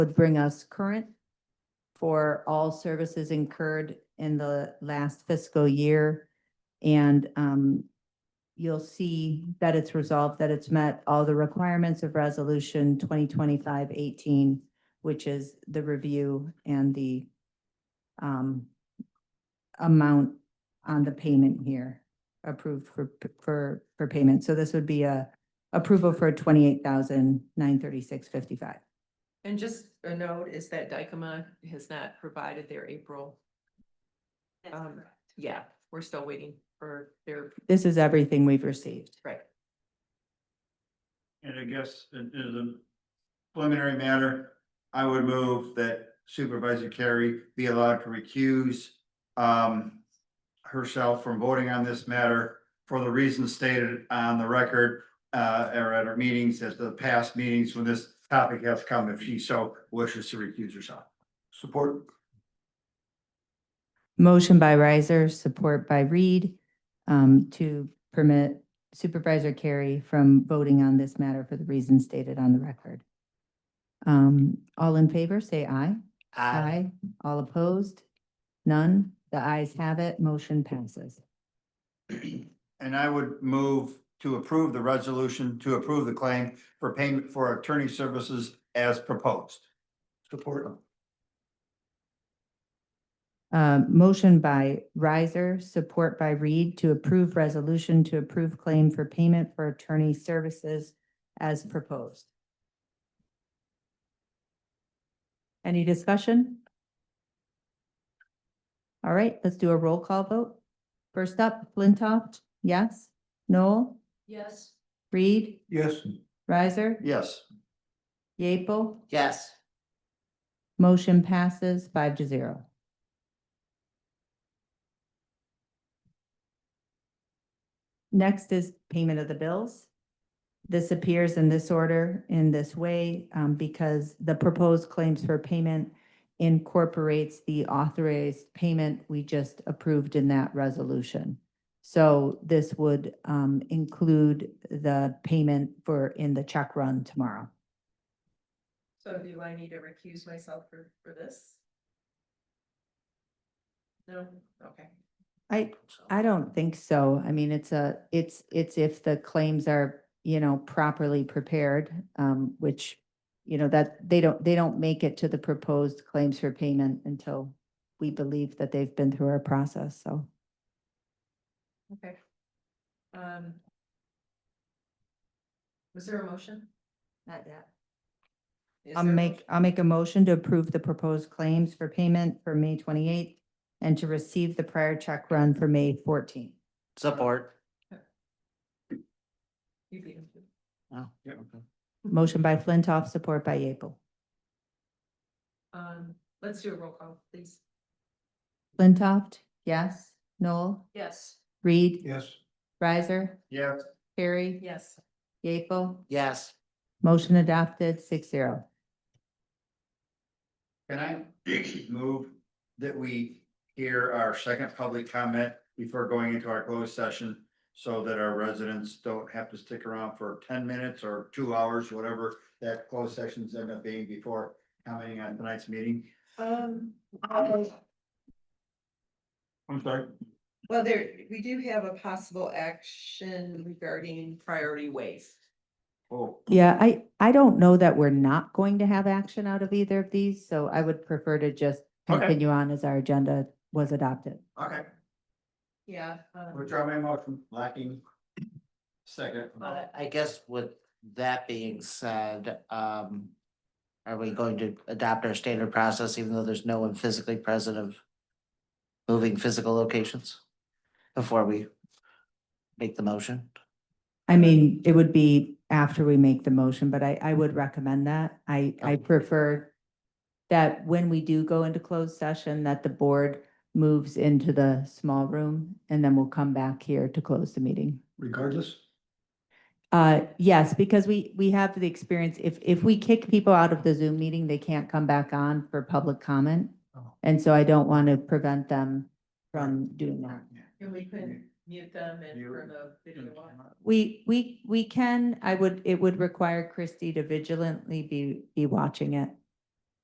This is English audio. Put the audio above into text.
would bring us current for all services incurred in the last fiscal year. And um, you'll see that it's resolved, that it's met all the requirements of Resolution 2025-18, which is the review and the um, amount on the payment here approved for, for, for payment. So this would be a approval for twenty-eight thousand nine thirty-six fifty-five. And just a note is that Dykema has not provided their April. Um, yeah, we're still waiting for their, This is everything we've received. right. And I guess it is a preliminary matter. I would move that Supervisor Carey be allowed to recuse um herself from voting on this matter for the reasons stated on the record uh or at our meetings, at the past meetings when this topic has come, if she so wishes to recuse herself. Support. Motion by Riser, support by Reed, um, to permit Supervisor Carey from voting on this matter for the reasons stated on the record. Um, all in favor, say aye. Aye. All opposed? None? The ayes have it. Motion passes. And I would move to approve the resolution to approve the claim for payment for attorney services as proposed. Support. Uh, motion by Riser, support by Reed to approve resolution to approve claim for payment for attorney services as proposed. Any discussion? All right, let's do a roll call vote. First up, Flintoff, yes? Noel? Yes. Reed? Yes. Riser? Yes. Yeaple? Yes. Motion passes five to zero. Next is payment of the bills. This appears in this order in this way um, because the proposed claims for payment incorporates the authorized payment we just approved in that resolution. So this would um, include the payment for in the check run tomorrow. So do I need to recuse myself for, for this? No, okay. I, I don't think so. I mean, it's a, it's, it's if the claims are, you know, properly prepared, um, which, you know, that, they don't, they don't make it to the proposed claims for payment until we believe that they've been through our process, so. Okay. Um. Was there a motion? Not yet. Is I'll there a make, motion? I'll make a motion to approve the proposed claims for payment for May twenty-eighth and to receive the prior check run for May fourteenth. Support. You beat him to it. Oh, Yep. okay. Motion by Flintoff, support by Yeaple. Um, let's do a roll call, please. Flintoff, yes. Noel, Yes. Reed, Yes. Riser, Yes. Carrie. Yes. Yeaple, Yes, motion adopted, six zero. Can I move that we hear our second public comment before going into our closed session? So that our residents don't have to stick around for ten minutes or two hours, whatever that closed sessions end up being before commenting on tonight's meeting. Um, um, I'm sorry. well, there, we do have a possible action regarding, Priority ways. Oh, Yeah, I, I don't know that we're not going to have action out of either of these, so I would prefer to just Okay. continue on as our agenda was adopted. okay, Yeah. um, withdraw my motion, lacking. Second. I I guess with that being said, um. Are we going to adopt our standard process even though there's no one physically present of moving physical locations? Before we make the motion? I mean, it would be after we make the motion, but I, I would recommend that. I, I Okay. prefer that when we do go into closed session, that the board moves into the small room and then we'll come back here to close the meeting. Regardless. Uh, yes, because we, we have the experience, if, if we kick people out of the Zoom meeting, they can't come back on for public comment. Oh. And so I don't want to prevent them from doing that. And we could mute them and You- turn the video on. We, we, we can, I would, it would require Christie to vigilantly be, be watching it.